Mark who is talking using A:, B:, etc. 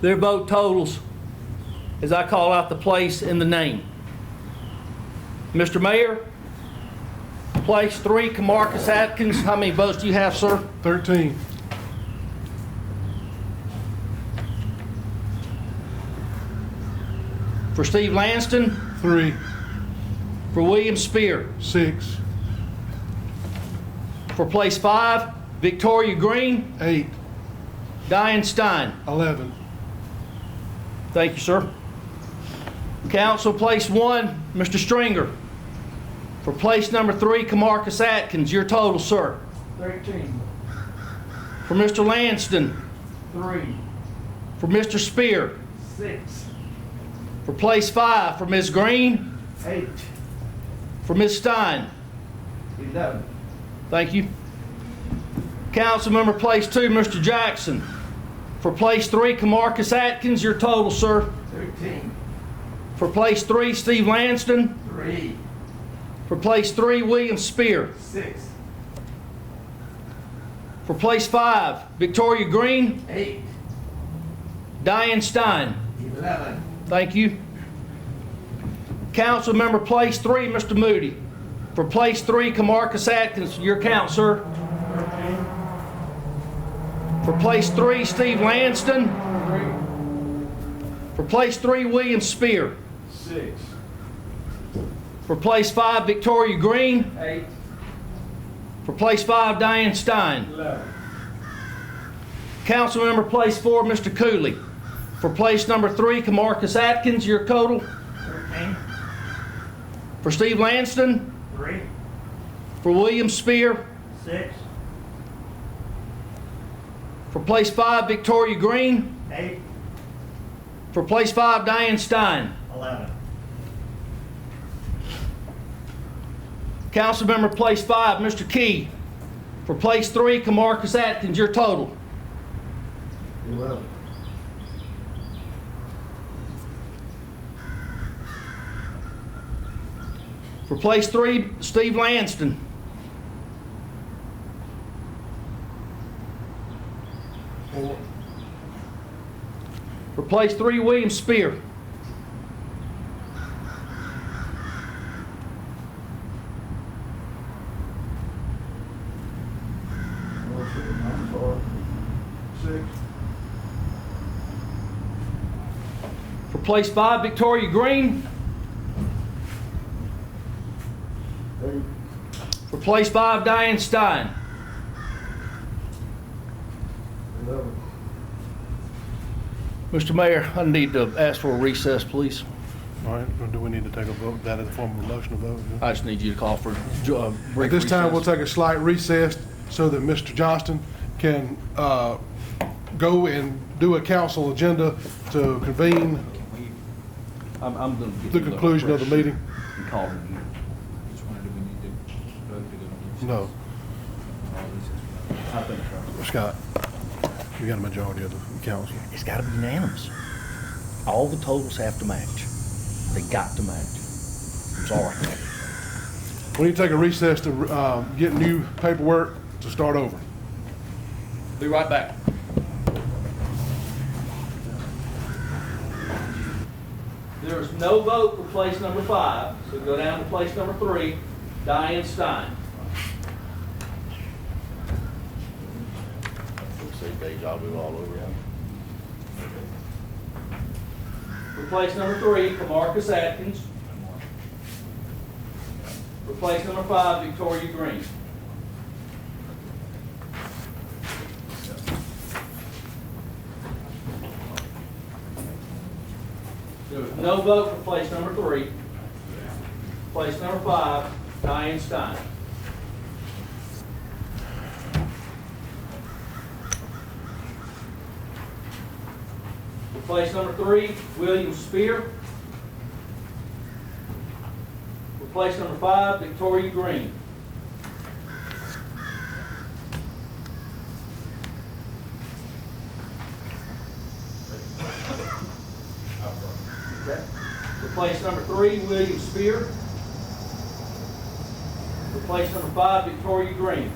A: Their vote totals as I call out the place and the name. Mr. Mayor, place three, Camarcus Atkins. How many votes do you have, sir?
B: 13.
A: For Steve Lanston,
B: 3.
A: for William Spear.
B: 6.
A: For place five, Victoria Green,
B: 8.
A: Diane Stein.
B: 11.
A: Thank you, sir. Council, place one, Mr. Stringer. For place number three, Camarcus Atkins. Your total, sir.
C: 13,
A: For Mr. Lanston,
C: 3,
A: for Mr. Spear.
C: 6,
A: For place five, for Ms. Green,
C: 8,
A: for Ms. Stein.
C: 11,
A: Thank you. Councilmember Place Two, Mr. Jackson. For Place Three, Camarcus Atkins, your total, sir.
C: 13,
A: For Place Three, Steve Lanston.
C: 3,
A: For Place Three, William Spear.
C: 6,
A: For Place Five, Victoria Green,
C: 8,
A: Diane Stein.
C: 11,
A: Thank you. Councilmember Place Three, Mr. Moody. For Place Three, Camarcus Atkins, your count, sir. For Place Three, Steve Lanston.
C: 3,
A: For place three, William Spear.
C: 6,
A: For place five, Victoria Green.
C: 8,
A: For place five, Diane Stein.
C: 11,
A: Councilmember place four, Mr. Cooley. For place number three, Camarcus Atkins, your total.
C: 13,
A: For Steve Lanston.
C: 3,
A: For William Spear.
C: 6,
A: For place five, Victoria Green.
C: 8,
A: For place five, Diane Stein.
C: 11,
A: Councilmember place five, Mr. Key. For place three, Camarcus Atkins, your total.
C: 11,
A: For place three, Steve Lanston.
B: Four.
A: For place three, William Spear.
C: I'm sorry, 6,
A: For place five, Victoria Green.
C: 8,
A: For place five, Diane Stein.
C: 11.
A: Mr. Mayor, I need to ask for a recess, please.
B: All right, or do we need to take a vote, that in the form of a motion to vote? yeah?
A: I just need you to call for a
B: At
A: brief
B: this time, we'll
A: recess.
B: take a slight recess so that Mr. Johnston can uh, go and do a council agenda to convene
A: I'm, I'm gonna get
B: the
A: you a
B: conclusion of the
A: fresh
B: meeting.
A: and call it a meeting.
D: Which one do we need to vote to go into?
B: No,
D: All this is-
A: I think so.
B: Scott, you got a majority of the council.
A: It's gotta be unanimous. All the totals have to match. They got to match. I'm sorry.
B: We need to take a recess to uh, get new paperwork to start over.
A: Be right back. There is no vote for place number five, so go down to place number three, Diane Stein. See deja vu all over again. For place number three, Camarcus Atkins. For place number five, Victoria Green. There was no vote for place number three. Place number five, Diane Stein. For place number three, William Spear. For place number five, Victoria Green. Okay. For place number three, William Spear. For place number five, Victoria Green.